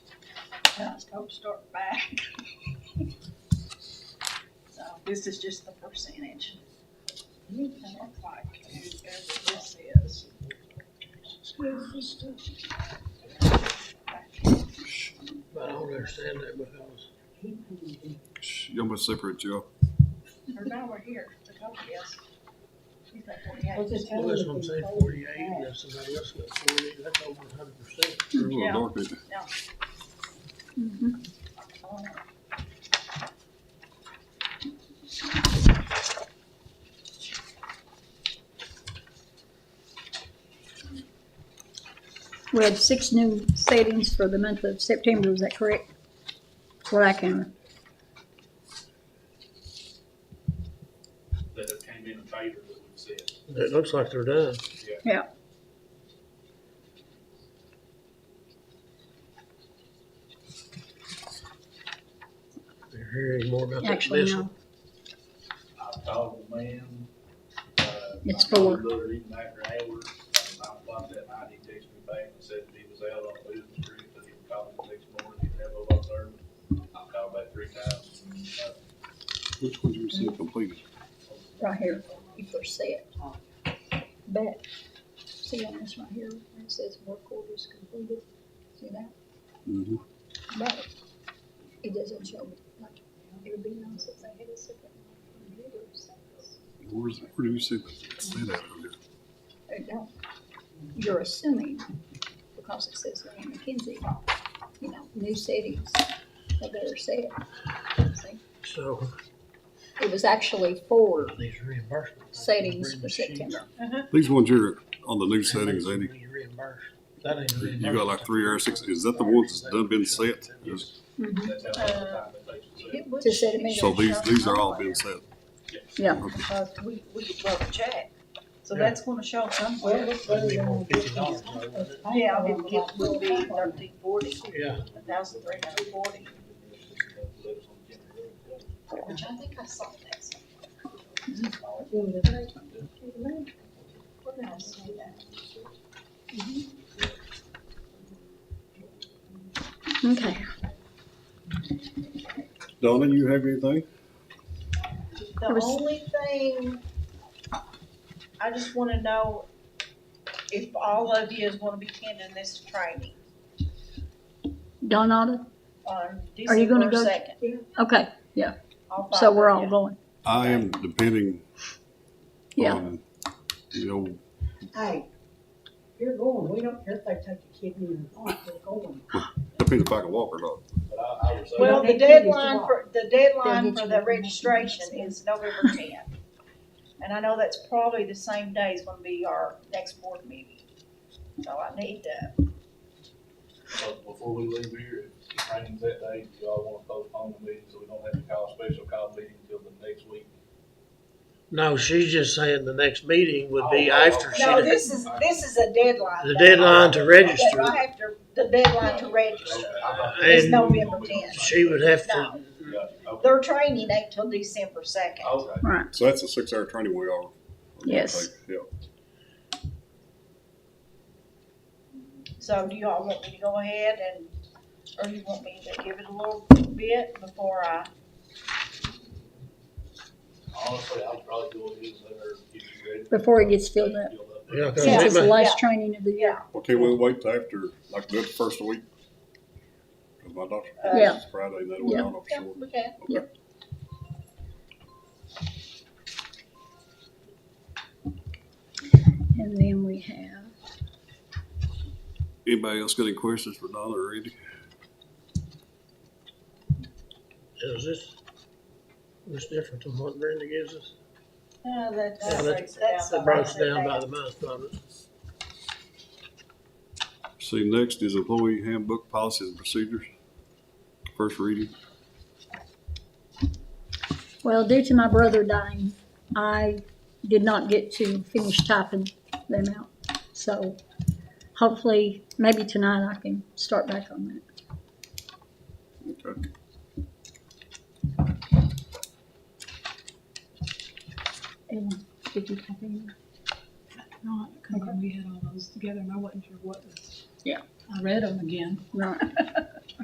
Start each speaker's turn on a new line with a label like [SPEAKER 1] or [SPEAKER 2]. [SPEAKER 1] Let's go start back. So this is just the percentage. It looks like, and this is.
[SPEAKER 2] But I don't understand that because
[SPEAKER 3] Shh, You almost separated you.
[SPEAKER 1] Or now we're here, the total is. He's like forty-eight.
[SPEAKER 2] well, that's what I'm saying, forty-eight, and that's about less than forty, that's over a hundred percent.
[SPEAKER 3] You're
[SPEAKER 4] Hmm.
[SPEAKER 3] a
[SPEAKER 1] Yeah.
[SPEAKER 3] little dark, ain't you?
[SPEAKER 4] Mm-hmm.
[SPEAKER 1] Oh,
[SPEAKER 4] We had six new settings for the month of September, is that correct? What I can,
[SPEAKER 5] that have came in and paid her that we've said.
[SPEAKER 2] It looks like they're done.
[SPEAKER 4] yeah.
[SPEAKER 2] They're hearing more about that
[SPEAKER 4] Actually,
[SPEAKER 2] this
[SPEAKER 4] no.
[SPEAKER 2] one.
[SPEAKER 5] I've talked to ma'am. uh,
[SPEAKER 4] It's
[SPEAKER 5] I called
[SPEAKER 4] four.
[SPEAKER 5] her Another evening after hours, and I blocked that night, he texted me back and said that he was out on business trip, but he would call me the next morning, he'd have a lot of I called back three times. uh,
[SPEAKER 3] Which one did you see completed?
[SPEAKER 4] right here, you first see it. But, see on this right here, where it says work orders completed, see that?
[SPEAKER 3] Mm-hmm.
[SPEAKER 4] But it doesn't show, like, it would be nice if they had a separate. computer, so
[SPEAKER 3] Where's, where do you see that? See that over there?
[SPEAKER 4] It don't, you're assuming, because it says Lane McKenzie, you know, new settings, they better say it. See?
[SPEAKER 2] So
[SPEAKER 4] It was actually four
[SPEAKER 2] these reimbursements.
[SPEAKER 4] settings
[SPEAKER 2] Bring
[SPEAKER 4] for
[SPEAKER 2] the sheet.
[SPEAKER 4] September.
[SPEAKER 3] These ones here on the new
[SPEAKER 2] How much
[SPEAKER 3] settings,
[SPEAKER 2] we
[SPEAKER 3] Eddie,
[SPEAKER 2] reimbursed? That ain't reimbursed.
[SPEAKER 3] you got like three or six, is that the ones that's done been set?
[SPEAKER 2] Yes.
[SPEAKER 5] That's how long the time it takes to set.
[SPEAKER 1] it would-
[SPEAKER 4] To set a meeting.
[SPEAKER 3] So these, these are all been set.
[SPEAKER 4] Yeah.
[SPEAKER 1] Because we, we could double check, so
[SPEAKER 2] Yeah.
[SPEAKER 1] that's gonna show somewhere.
[SPEAKER 2] That'd be more than fifty dollars, though, wouldn't it?
[SPEAKER 1] Yeah, it would- would be thirteen forty,
[SPEAKER 2] Yeah,
[SPEAKER 1] a thousand three hundred forty.
[SPEAKER 6] Which I think I saw that.
[SPEAKER 1] We're gonna see that.
[SPEAKER 4] Okay.
[SPEAKER 3] Donna, you have anything?
[SPEAKER 1] The
[SPEAKER 4] There was-
[SPEAKER 1] only thing, I just wanna know if all of you is gonna be attending this training
[SPEAKER 4] Donata,
[SPEAKER 1] on
[SPEAKER 4] Are you
[SPEAKER 1] December
[SPEAKER 4] gonna go?
[SPEAKER 1] second.
[SPEAKER 4] okay, so we're all going.
[SPEAKER 3] I am depending
[SPEAKER 4] Yeah.
[SPEAKER 3] on, you know,
[SPEAKER 7] Hey, you're going, we don't care if they take the kidney or not, we're going.
[SPEAKER 3] depending if I can walk or not.
[SPEAKER 5] But I, I was.
[SPEAKER 1] Well, the
[SPEAKER 7] Well, they did this
[SPEAKER 1] deadline
[SPEAKER 7] a lot.
[SPEAKER 1] for, the deadline
[SPEAKER 7] They'll get
[SPEAKER 1] for
[SPEAKER 7] you
[SPEAKER 1] the
[SPEAKER 7] information
[SPEAKER 1] registration
[SPEAKER 7] next
[SPEAKER 1] is November tenth. And I know that's probably the same day is gonna be our next board meeting. So I need to,
[SPEAKER 5] But before we leave here, if it rains that day, do y'all wanna postpone the meeting so we don't have to call a special call meeting until the next week?
[SPEAKER 2] no, she's just saying the next meeting would be
[SPEAKER 5] Oh,
[SPEAKER 2] after she,
[SPEAKER 5] No,
[SPEAKER 2] did-
[SPEAKER 5] this is- this
[SPEAKER 1] is a deadline.
[SPEAKER 2] the deadline to register.
[SPEAKER 1] I have to, the deadline to register.
[SPEAKER 2] It's
[SPEAKER 1] November 10th.
[SPEAKER 2] She would have to,
[SPEAKER 1] No,
[SPEAKER 5] Yeah, okay.
[SPEAKER 1] their training ain't till December second.
[SPEAKER 5] Okay.
[SPEAKER 3] So that's a six-hour training we are.
[SPEAKER 4] Yes.
[SPEAKER 3] Yeah.
[SPEAKER 1] So do y'all want me to go ahead and, or you want me to give it a little bit before I?
[SPEAKER 5] Honestly, I'll probably do it as later if you ready.
[SPEAKER 4] Before it gets filled up.
[SPEAKER 2] Yeah, okay.
[SPEAKER 4] Since it's the
[SPEAKER 2] Yeah.
[SPEAKER 4] last training of the year.
[SPEAKER 3] Well, can we wait till after, like, the first week? Cause my doctor's
[SPEAKER 1] uh,
[SPEAKER 4] Yeah.
[SPEAKER 3] Friday, that way I don't know for
[SPEAKER 1] Yeah,
[SPEAKER 3] sure.
[SPEAKER 1] we can.
[SPEAKER 3] Okay.
[SPEAKER 4] And then we have,
[SPEAKER 3] Anybody else got any questions for Donna or Andy?
[SPEAKER 2] is this, this different than what Brenda gives us?
[SPEAKER 1] Uh, that, that
[SPEAKER 2] Yeah, that-
[SPEAKER 1] breaks it down.
[SPEAKER 2] It breaks down by the month, doesn't it?
[SPEAKER 3] See, next is employee handbook policies and procedures. First reading.
[SPEAKER 4] well, due to my brother dying, I did not get to finish typing them out. So hopefully, maybe tonight I can start back on that.
[SPEAKER 3] Okay.
[SPEAKER 4] And did you type in?
[SPEAKER 8] not, because we had all those together and I wasn't sure what was.
[SPEAKER 4] Yeah.
[SPEAKER 8] I read them again,
[SPEAKER 4] Right.